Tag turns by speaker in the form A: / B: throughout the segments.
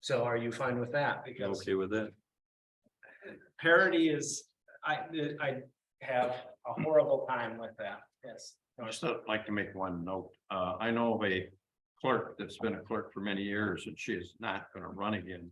A: So are you fine with that? Because
B: Okay with that?
A: parity is, I, I have a horrible time with that, yes.
B: I just would like to make one note. Uh, I know of a clerk that's been a clerk for many years and she is not gonna run again.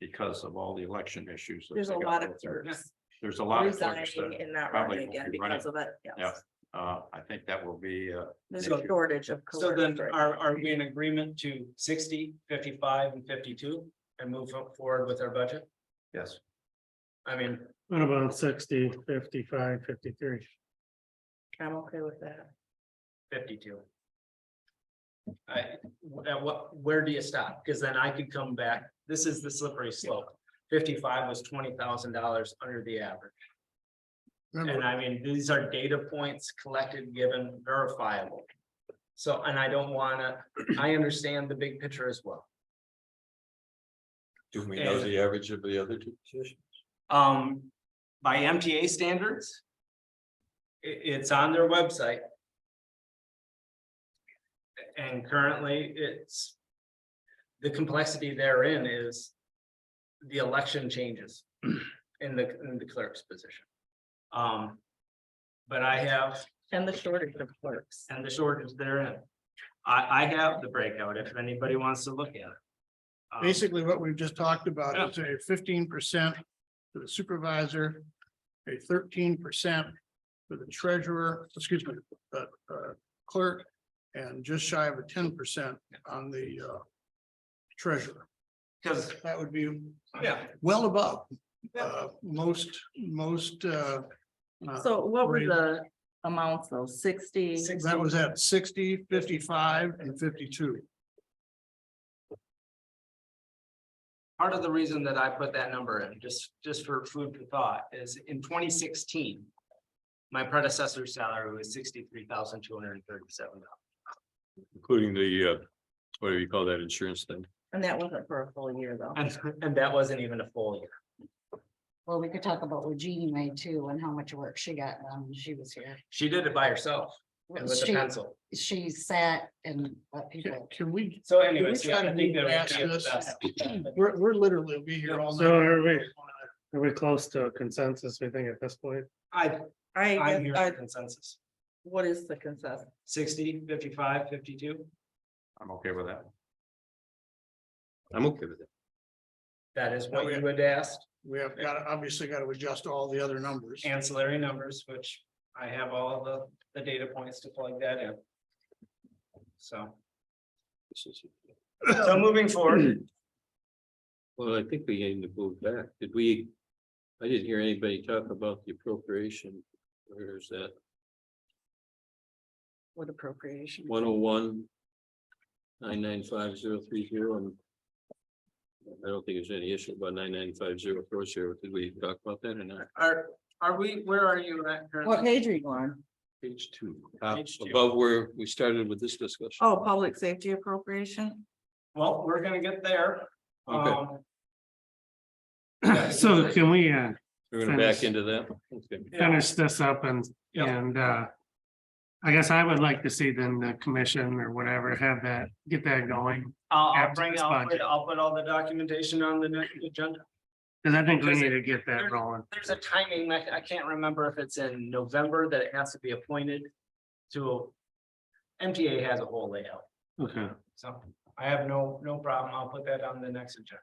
B: Because of all the election issues. that
C: There's
B: they
C: a
B: got
C: lot of
B: out there.
C: clerks
B: There's a lot of clerks
C: resigning
B: that,
C: and not
B: probably
C: running
B: won't
C: again
B: be running.
C: because of it.
B: Yeah.
C: Yes,
B: uh, I think that will be, uh,
C: there's
B: So-
C: a shortage of.
A: So then
C: clerks right
A: are,
C: now.
A: are we in agreement to 60, 55, and fifty-two and move forward with our budget?
B: yes.
A: I mean,
D: What about 60, 55, 53?
C: I'm okay with that.
A: fifty-two. I, at what, where do you stop? Because then I could come back, this is the slippery slope. Fifty-five was twenty thousand dollars under the average. And
D: Remember,
A: I mean, these are data points collected, given, verifiable. So, and I don't wanna, I understand the big picture as well.
B: Do we
A: know
B: the average of the other two positions?
A: Um, by MTA standards. i- it's on their website. And currently, it's. The complexity therein is. The election changes in the, in the clerk's position. Um. But I have
C: And the shortage of clerks.
A: and the shortage therein. I, I have the breakout if anybody wants to look at it. Um,
D: Basically, what we've just talked about is a fifteen percent for the supervisor, a thirteen percent for the treasurer, excuse me, uh, uh, clerk, and just shy of a ten percent on the uh, treasurer.
A: Cause,
D: That would be
A: yeah,
D: well above
A: Yeah.
D: uh, most, most uh, uh,
C: So what were
D: raise-
C: the amounts though? Sixty?
A: Six-
D: That was at 60, 55, and fifty-two.
A: part of the reason that I put that number in, just, just for food for thought, is in twenty sixteen. My predecessor's salary was sixty-three thousand two hundred and thirty-seven dollars.
B: Including the, uh, what do you call that insurance thing?
C: And that wasn't for a full year though.
A: And, and that wasn't even a full year.
E: Well, we could talk about what Jeannie made too and how much work she got done when she was here.
A: She did it by herself and with a
E: She,
A: pencil.
E: she sat and let
D: Can-
E: people,
D: Can we,
A: So
D: we
A: anyways, yeah,
D: try
A: I
D: to
A: think
D: move
A: that
D: past
A: would be
D: this?
A: the best.
D: We're, we're literally, will be here all night.
F: So are we, are we close to consensus, we think at this point?
A: I,
C: I,
A: I'm
C: guess
A: here
C: I,
A: for consensus.
C: what is the consensus?
A: 60, 55, 52.
B: I'm okay with that. I'm okay with it.
A: That is what
D: Okay.
A: you had asked,
D: We have got, to obviously got to adjust all the other numbers.
A: ancillary numbers, which I have all the, the data points to plug that in. So,
B: This is-
A: so moving forward,
B: Well, I think we aim to move back. Did we? I didn't hear anybody talk about the appropriation. Where's that?
E: with appropriation.
B: One oh one. Nine nine five zero three zero and. I don't think there's any issue about nine nine five zero four zero. Did we talk about that or not?
A: Are, are we, where are you at
C: What
A: currently?
C: page are you on?
B: Page two. Uh,
A: Page two.
B: Above where we started with this discussion.
C: Oh, public safety appropriation?
A: Well, we're gonna get there.
B: Okay.
A: Um, Yeah.
F: So can we uh
B: We're gonna back
F: Finish.
B: into that. Okay.
A: yeah,
F: finish this up and,
A: Yeah.
F: and uh. I guess I would like to see then the commission or whatever have that, get that going,
A: I'll, I'll
F: after
A: bring,
F: this
A: I'll, put-
F: budget.
A: I'll put all the documentation on the next agenda.
F: because I think we need to get that rolling.
A: There's a timing, I, I can't remember if it's in November that it has to be appointed to. MTA has a whole layout,
F: Okay.
A: so I have no, no problem. I'll put that on the next agenda.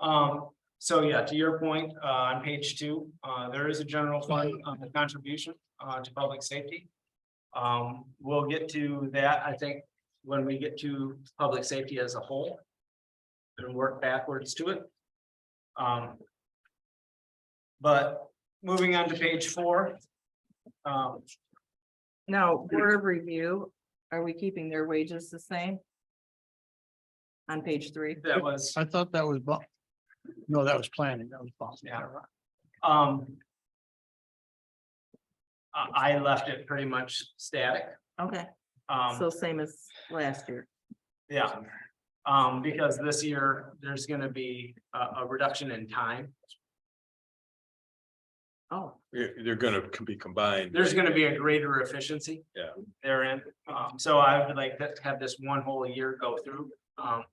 A: Um, so yeah, to your point, uh, on page two, uh, there is a general fund, um, contribution, uh, to public safety. Um, we'll get to that, I think, when we get to public safety as a whole. And work backwards to it. Um. But moving on to page four. Um,
C: Now, board of review, are we keeping their wages the same? On page three?
A: that was,
D: I thought that was, bu- no, that was planning, that was Boston.
A: yeah. Um. I, I left it pretty much static,
C: Okay,
A: um.
C: so same as last year.
A: Yeah, um, because this year, there's gonna be a, a reduction in time.
C: Oh,
G: They're, they're gonna c- be combined.
A: There's gonna be a greater efficiency.
G: Yeah.
A: Therein, um, so I would like to have this one whole year go through, um,